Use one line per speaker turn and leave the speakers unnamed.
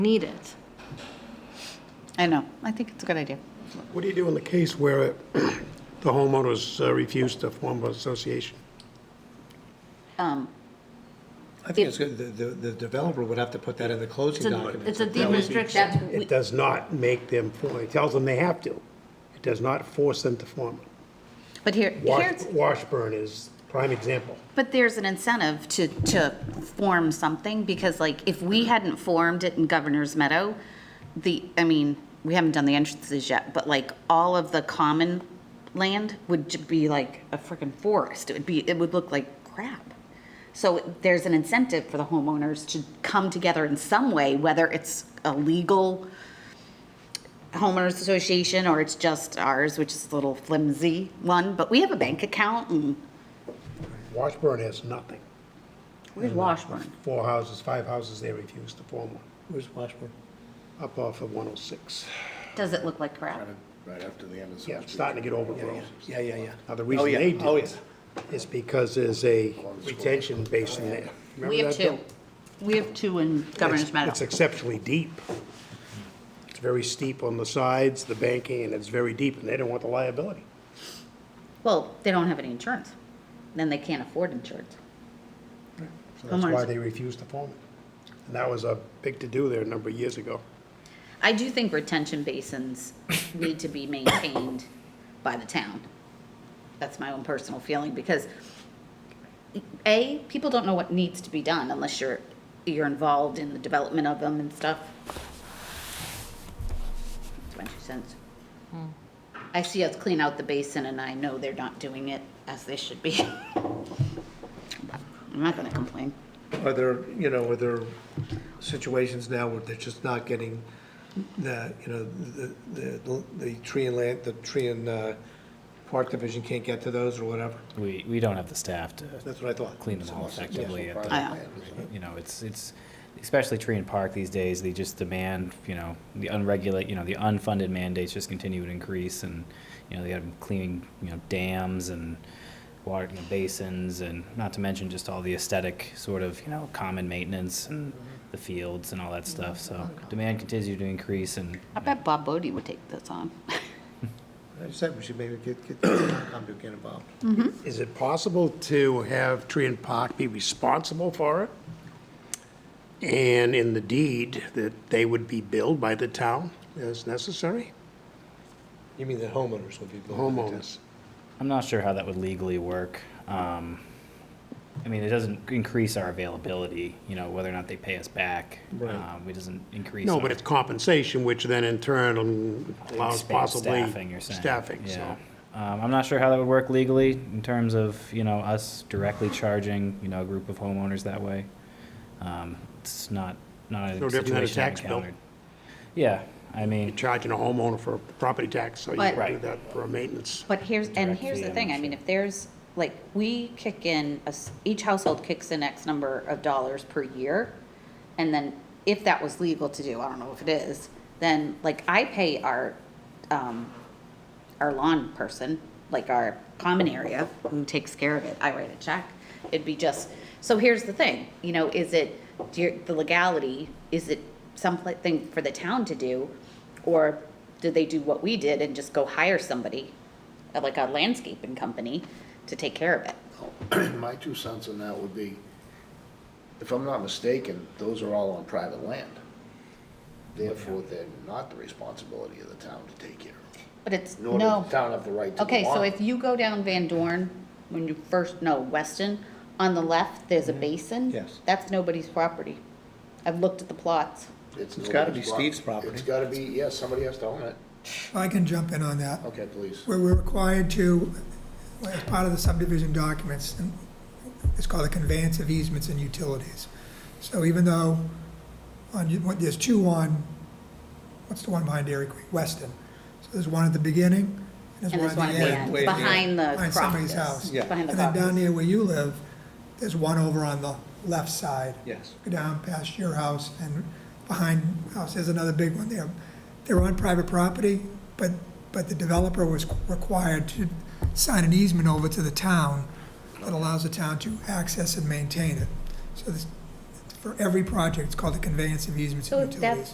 need it.
I know, I think it's a good idea.
What do you do in the case where the homeowners uh, refuse to form an association?
Um,
I think it's good, the, the the developer would have to put that in the
It's
closing
a,
documents.
it's a deed restriction.
It does not make them, form. it tells them they have to. It does not force them to form.
But here,
Wash-
here's,
Washburn is prime example.
but there's an incentive to, to form something, because like, if we hadn't formed it in Governor's Meadow, the, I mean, we haven't done the entrances yet, but like, all of the common land would ju- be like a freaking forest, it would be, it would look like crap. So there's an incentive for the homeowners to come together in some way, whether it's a legal homeowners association or it's just ours, which is a little flimsy one, but we have a bank account and
Washburn has nothing.
Where's Washburn?
Four houses, five houses, they refuse to form one,
Where's Washburn?
up off of 106.
Does it look like crap?
Right after the end of
Yeah,
Summer
it's
Street.
starting to get overgrown.
Yeah, yeah, yeah.
Now, the
Oh,
reason
yeah.
they do
Oh,
it is because there's a retention basin there.
We
Remember
have
that,
two.
Bill?
We have two in Governor's
It's-
Meadow.
It's exceptionally deep. It's very steep on the sides, the banking, and it's very deep, and they don't want the liability.
Well, they don't have any insurance. Then they can't afford insurance.
So that's why
Homeowners.
they refuse to form it. And that was a big to-do there a number of years ago.
I do think retention basins need to be maintained by the town. That's my own personal feeling, because A, people don't know what needs to be done unless you're, you're involved in the development of them and stuff. That's my two cents. Hmm. I see us clean out the basin and I know they're not doing it as they should be. But I'm not gonna complain.
Are there, you know, are there situations now where they're just not getting the, you know, the, the, the tree and land, the tree and, uh, park division can't get to those or whatever?
We, we don't have the staff to
That's what I thought.
clean them all effectively at
I
the,
know.
you know, it's, it's, especially tree and park these days, they just demand, you know, the unregulate, you know, the unfunded mandates just continue to increase and, you know, they have them cleaning, you know, dams and water you know, basins and not to mention just all the aesthetic sort of, you know, common maintenance and the fields and all that stuff, so demand continues to increase and
I bet Bob Bodie would take this on.
I just said we should maybe get, get, Concom to get involved.
Is it possible to have Tree and Park be responsible for it? And in the deed, that they would be billed by the town as necessary,
You mean the homeowners would be.
the homeowners?
I'm not sure how that would legally work. Um, I mean, it doesn't increase our availability, you know, whether or not they pay us back.
Right.
Um, It doesn't increase.
No,
our-
but it's compensation, which then in turn um, allows
Expand
possibly
Staffing, you're saying.
staffing,
Yeah.
so.
Um, I'm not sure how that would work legally in terms of, you know, us directly charging, you know, a group of homeowners that way. Um, It's not, not a
No different
situation
than a
I've
tax bill.
encountered. Yeah, I mean,
Charging a homeowner for property tax, so you
But-
can do that for maintenance.
But here's, and
Direct
here's
fee,
the
I'm
thing,
not
I mean,
sure.
if there's, like, we kick in, a s- each household kicks in X number of dollars per year, and then if that was legal to do, I don't know if it is, then, like, I pay our, um, our lawn person, like our common area, who takes care of it, I write a check. It'd be just, so here's the thing, you know, is it, do you- the legality, is it something for the town to do? Or do they do what we did and just go hire somebody, uh, like a landscaping company, to take care of it?
My two cents on that would be, if I'm not mistaken, those are all on private land. Therefore, they're not the responsibility of the town to take care of.
But it's,
Nor does
no.
the town have the right to.
Okay,
go
so
on.
if you go down Van Dorn, when you first, no, Weston, on the left, there's
Mm-hmm.
a basin.
Yes.
That's nobody's property. I've looked at the plots.
It's gotta be
nobody's prop-
Steve's property.
It's gotta be, yes, somebody has to own it.
I can jump in on that.
Okay, please.
Where we're required to, as part of the subdivision documents, and it's called the conveyance of easements and utilities. So even though on, you- what- there's two on, what's the one behind Dairy Queen? Weston. So there's one at the beginning, and
And
there's one at the end.
way at the
behind the
Behind somebody's house.
crocus.
Yeah.
Behind the
And then down
crocus.
near where you live, there's one over on the left side.
Yes.
Go down past your house and behind house, there's another big one there. They're on private property, but, but the developer was required to sign an easement over to the town that allows the town to access and maintain it. So this, for every project, it's called the conveyance of easements
So
and
that's,
utilities.